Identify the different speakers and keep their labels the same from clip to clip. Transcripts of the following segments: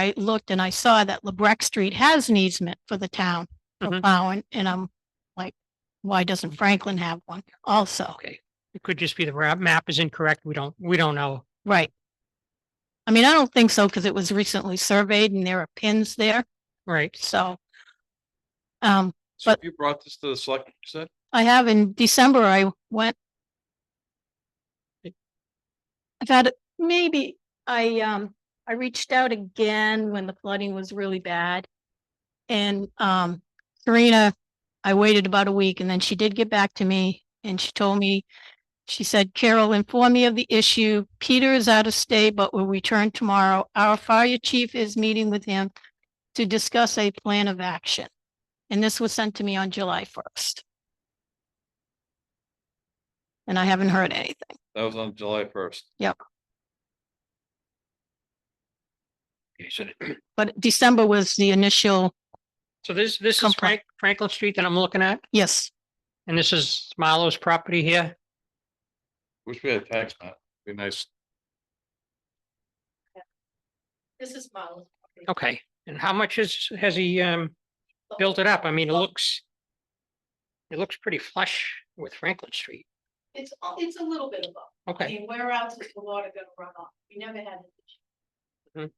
Speaker 1: I looked and I saw that LeBrec Street has an easement for the town for
Speaker 2: Mhm.
Speaker 1: plowing, and I'm like, why doesn't Franklin have one also?
Speaker 2: Okay. It could just be the ra- map is incorrect. We don't, we don't know.
Speaker 1: Right. I mean, I don't think so because it was recently surveyed and there are pins there,
Speaker 2: Right.
Speaker 1: so. Um,
Speaker 3: So
Speaker 1: But-
Speaker 3: you brought this to the select, you said?
Speaker 1: I have in December, I went. I've had, maybe, I, um, I reached out again when the flooding was really bad. And, um, Karina, I waited about a week and then she did get back to me and she told me, she said, Carol, inform me of the issue. Peter is out of state, but will return tomorrow. Our fire chief is meeting with him to discuss a plan of action. And this was sent to me on July first and I haven't heard anything.
Speaker 3: That was on July first.
Speaker 1: Yep.
Speaker 3: You said,
Speaker 1: But December was the initial,
Speaker 2: So this, this is
Speaker 1: Complaint.
Speaker 2: Frank, Franklin Street that I'm looking at,
Speaker 1: yes,
Speaker 2: and this is Marlowe's property here.
Speaker 3: wish we had a tax map, be nice.
Speaker 1: this is Marlowe's.
Speaker 2: Okay. And how much is, has he, um, built it up? I mean, it looks, it looks pretty flush with Franklin Street.
Speaker 1: It's, a- it's a little bit above. I
Speaker 2: Okay.
Speaker 1: mean, where else is the water gonna run off? We never had an issue.
Speaker 2: Mhm.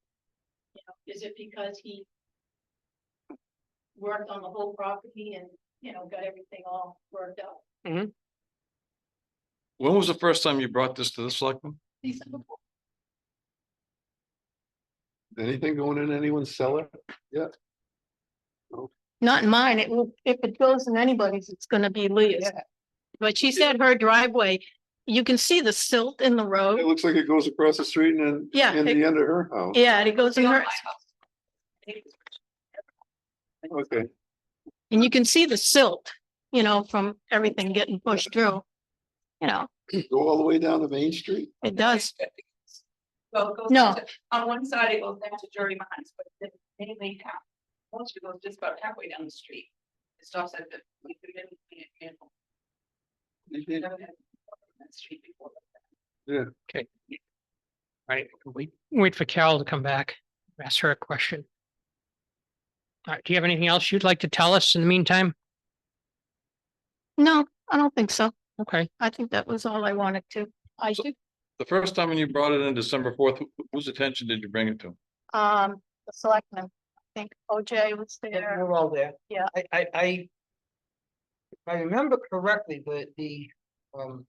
Speaker 1: You know, is it because he worked on the whole property and, you know, got everything all worked out?
Speaker 3: When was the first time you brought this to the selectmen?
Speaker 1: He said, "Well,
Speaker 4: Anything going in anyone's cellar?
Speaker 1: Not in mine. It will, if it goes in anybody's, it's gonna be Leah's.
Speaker 4: Yeah.
Speaker 1: But she said her driveway, you can see the silt in the road.
Speaker 4: It looks like it goes across the street and
Speaker 1: Yeah,
Speaker 4: then in
Speaker 1: it-
Speaker 4: the end of her house.
Speaker 1: Yeah, and it goes in her,
Speaker 4: Okay,
Speaker 1: and you can see the silt, you know, from everything getting pushed through. You know,
Speaker 4: go all the way down to Main Street?
Speaker 1: it does.
Speaker 5: Well, it goes.
Speaker 1: No.
Speaker 5: to- On one side, it goes down to Jerry Mines, but then mainly half. Once it goes just about halfway down the street. It stops at the. we could have been in a handful.
Speaker 4: You
Speaker 5: We
Speaker 4: can't-
Speaker 5: never had a problem on that street before.
Speaker 2: Right. Wait, wait for Carol to come back. Ask her a question. All right. Do you have anything else you'd like to tell us in the meantime?
Speaker 1: No, I don't think so.
Speaker 2: Okay.
Speaker 1: I think that was all I wanted to. I
Speaker 3: So-
Speaker 1: should,
Speaker 3: The first time when you brought it in December fourth, whose attention did you bring it to?
Speaker 1: um, the selectmen, I think OJ was there.
Speaker 6: They're all there.
Speaker 1: Yeah.
Speaker 6: I, I, I. If I remember correctly, the, the, um.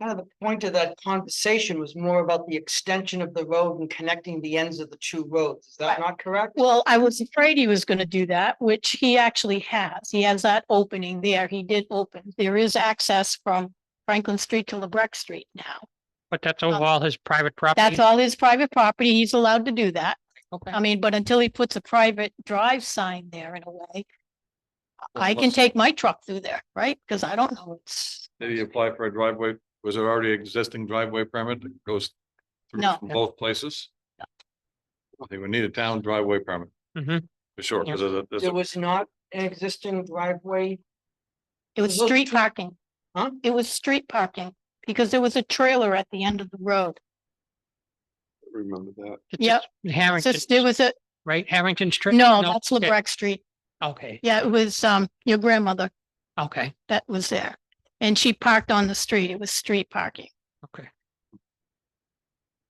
Speaker 6: Kind of the point of that conversation was more about the extension of the road and connecting the ends of the two roads. Is
Speaker 1: Right.
Speaker 6: that not correct?
Speaker 1: Well, I was afraid he was gonna do that, which he actually has. He has that opening there. He did open. There is access from Franklin Street to LeBrec Street now.
Speaker 2: But that's overall his private property.
Speaker 1: Um, That's Um, all his private property. He's allowed to do that.
Speaker 2: Okay.
Speaker 1: I mean, but until he puts a private drive sign there in a way, I can
Speaker 3: Unless-
Speaker 1: take my truck through there, right? Because I don't know, it's,
Speaker 3: Did he apply for a driveway? Was there already existing driveway permit that goes? through
Speaker 1: No.
Speaker 3: from Both places? They would need a town driveway permit.
Speaker 2: Mhm.
Speaker 3: For sure,
Speaker 2: Yeah.
Speaker 3: because there's a, there's
Speaker 6: There
Speaker 3: a,
Speaker 6: was not an existing driveway,
Speaker 1: it was
Speaker 6: Look,
Speaker 1: street parking.
Speaker 6: Huh?
Speaker 1: It was street parking because there was a trailer at the end of the road.
Speaker 4: Remember that.
Speaker 2: It's
Speaker 1: Yep.
Speaker 2: just
Speaker 1: So
Speaker 2: Harrington,
Speaker 1: there was a,
Speaker 2: right? Harrington Street?
Speaker 1: no, that's
Speaker 2: okay,
Speaker 1: LeBrec Street.
Speaker 2: Okay,
Speaker 1: Yeah, it was, um, your grandmother
Speaker 2: okay,
Speaker 1: that was there. And she parked on the street. It was street parking.
Speaker 2: okay.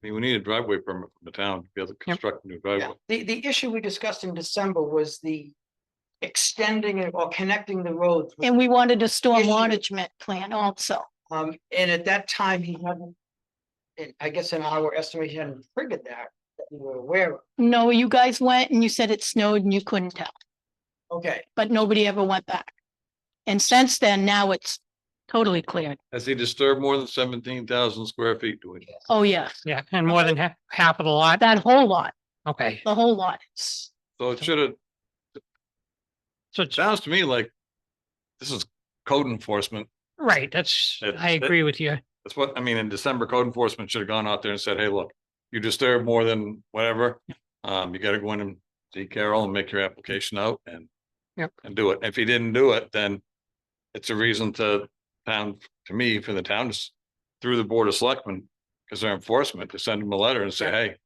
Speaker 3: we need a driveway permit from the town to be able to construct a new driveway.
Speaker 6: The, the issue we discussed in December was the. Extending it or connecting the roads.
Speaker 1: And we wanted a storm
Speaker 6: Issue.
Speaker 1: management plan also.
Speaker 6: Um, and at that time, he hadn't. And I guess in our estimate, he hadn't triggered that, that we were aware of.
Speaker 1: No, you guys went and you said it snowed and you couldn't tell.
Speaker 6: Okay.
Speaker 1: but nobody ever went back. And since then, now it's totally cleared.
Speaker 3: Has he disturbed more than seventeen thousand square feet? Do we?
Speaker 1: Oh, yeah,
Speaker 2: Yeah, and more than half, half of the lot.
Speaker 1: that whole lot,
Speaker 2: Okay,
Speaker 1: the whole lot. is-
Speaker 3: So it should have,
Speaker 2: so it's,
Speaker 3: sounds to me like this is code enforcement.
Speaker 2: right, that's,
Speaker 3: That-
Speaker 2: I
Speaker 3: that-
Speaker 2: agree with you.
Speaker 3: That's what, I mean, in December, code enforcement should have gone out there and said, hey, look, you disturb more than whatever. Um, you gotta go in and see Carol and make your application out and.
Speaker 2: Yep.
Speaker 3: And do it. If he didn't do it, then it's a reason to town, to me, for the town to s through the board of selectmen, because their enforcement, to send them a letter and say, hey,